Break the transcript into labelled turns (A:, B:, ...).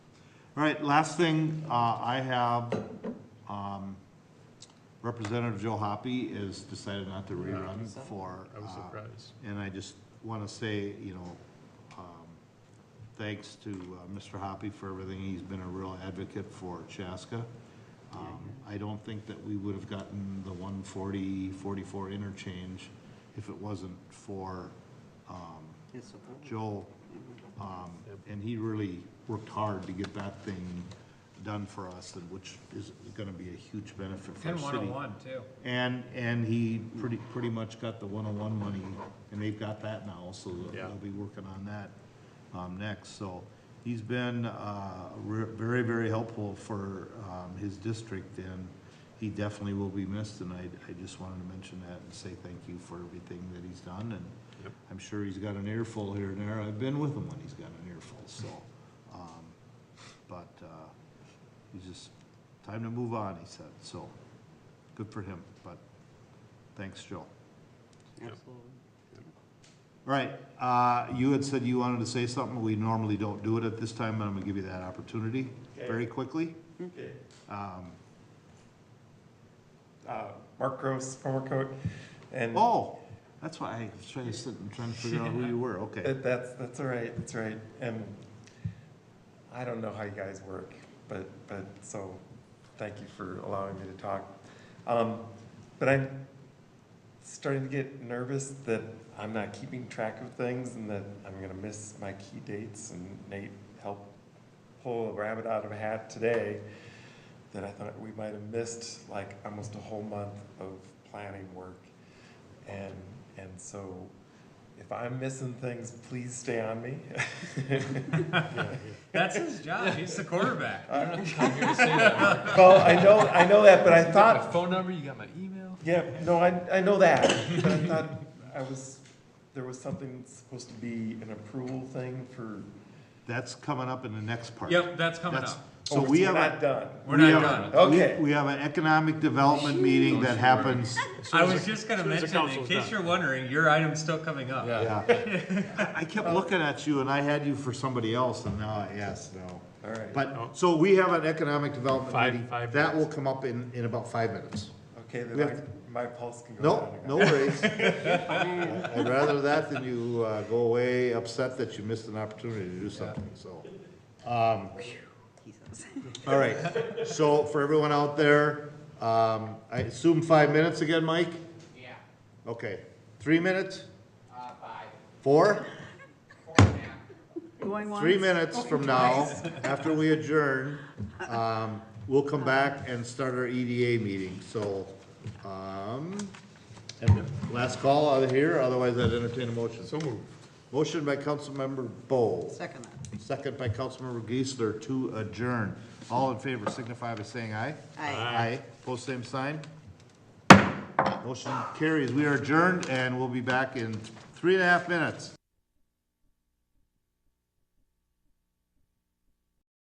A: All right, last thing, uh, I have, um, Representative Joe Hoppy has decided not to rerun for,
B: I was
A: uh,
B: surprised.
A: And I just want to say, you know, um, thanks to uh, Mr. Hoppy for everything. He's been a real advocate for Chaska. Um, I don't think that we would have gotten the 140, 44 interchange if it wasn't for um,
C: His support.
A: Joel. Um, And he really worked hard to get that thing done for us, and which is going to be a huge benefit for our
D: And
A: city.
D: 101 too.
A: And, and he pretty, pretty much got the one-on-one money, and they've got that now, so they'll-
B: Yeah.
A: they'll be working on that, um, next, so. He's been, uh, re- very, very helpful for, um, his district, and he definitely will be missed, and I, I just wanted to mention that and say thank you for everything that he's done, and
B: Yep.
A: I'm sure he's got an earful here and there, I've been with him when he's got an earful, so, um, but, uh, he's just, time to move on, he said, so, good for him, but thanks, Joe.
C: Absolutely.
A: All right, uh, you had said you wanted to say something, we normally don't do it at this time, but I'm gonna give you that opportunity very quickly.
E: Okay.
A: Um,
E: Uh, Mark Gross, former coach, and
A: oh, that's why I was trying to sit and trying to figure out who you were, okay.
E: that- that's, that's all right, that's right. And I don't know how you guys work, but, but, so, thank you for allowing me to talk. Um, But I'm starting to get nervous that I'm not keeping track of things and that I'm gonna miss my key dates and Nate helped pull a rabbit out of a hat today that I thought we might have missed like almost a whole month of planning work. And, and so if I'm missing things, please stay on me.
D: That's his job. He's the quarterback.
E: Well, I know, I know that, but I
B: Got my
E: thought,
B: phone number, you got my email?
E: yeah, no, I, I know that, but I thought I was, there was something supposed to be an approval thing for,
A: That's coming up in the next part.
D: Yep, that's coming
A: That's-
D: up.
E: oh,
A: So
E: we're
A: we have,
E: not
A: a-
E: done.
D: We're
A: we
D: not
A: have-
D: done.
E: done.
A: we-
E: Okay.
A: We have an economic development meeting that happens,
D: I was just gonna
B: soon as the
D: mention, in
B: council's
D: case
B: done.
D: you're wondering, your item's still coming up.
A: yeah. I- I kept looking at you and I had you for somebody else and now, I- yes, no.
E: All right.
A: But, so we have an economic development
B: Five-
A: meeting.
B: five
A: That will come up in, in about five minutes.
E: Okay,
A: We
E: then
A: have-
E: my, my pulse can go down.
A: No, no
E: again.
A: worries. I'd rather that than you uh, go away upset that you missed an opportunity to do something, so. um,
C: Jesus.
A: All right, so for everyone out there, um, I assume five minutes again, Mike?
F: Yeah,
A: Okay, three minutes,
F: uh, five,
A: four?
F: four and a half.
C: Going once.
A: three minutes from now, after we adjourn, um, we'll come back and start our EDA meeting, so, um, and last call out of here, otherwise I'd entertain a motion. So moved. Motion by Councilmember Bowe,
C: Second that.
A: second by Councilmember Geisler to adjourn. All in favor signify by saying aye.
C: Aye.
A: Aye, Post same sign. Motion carries, we are adjourned and we'll be back in three and a half minutes.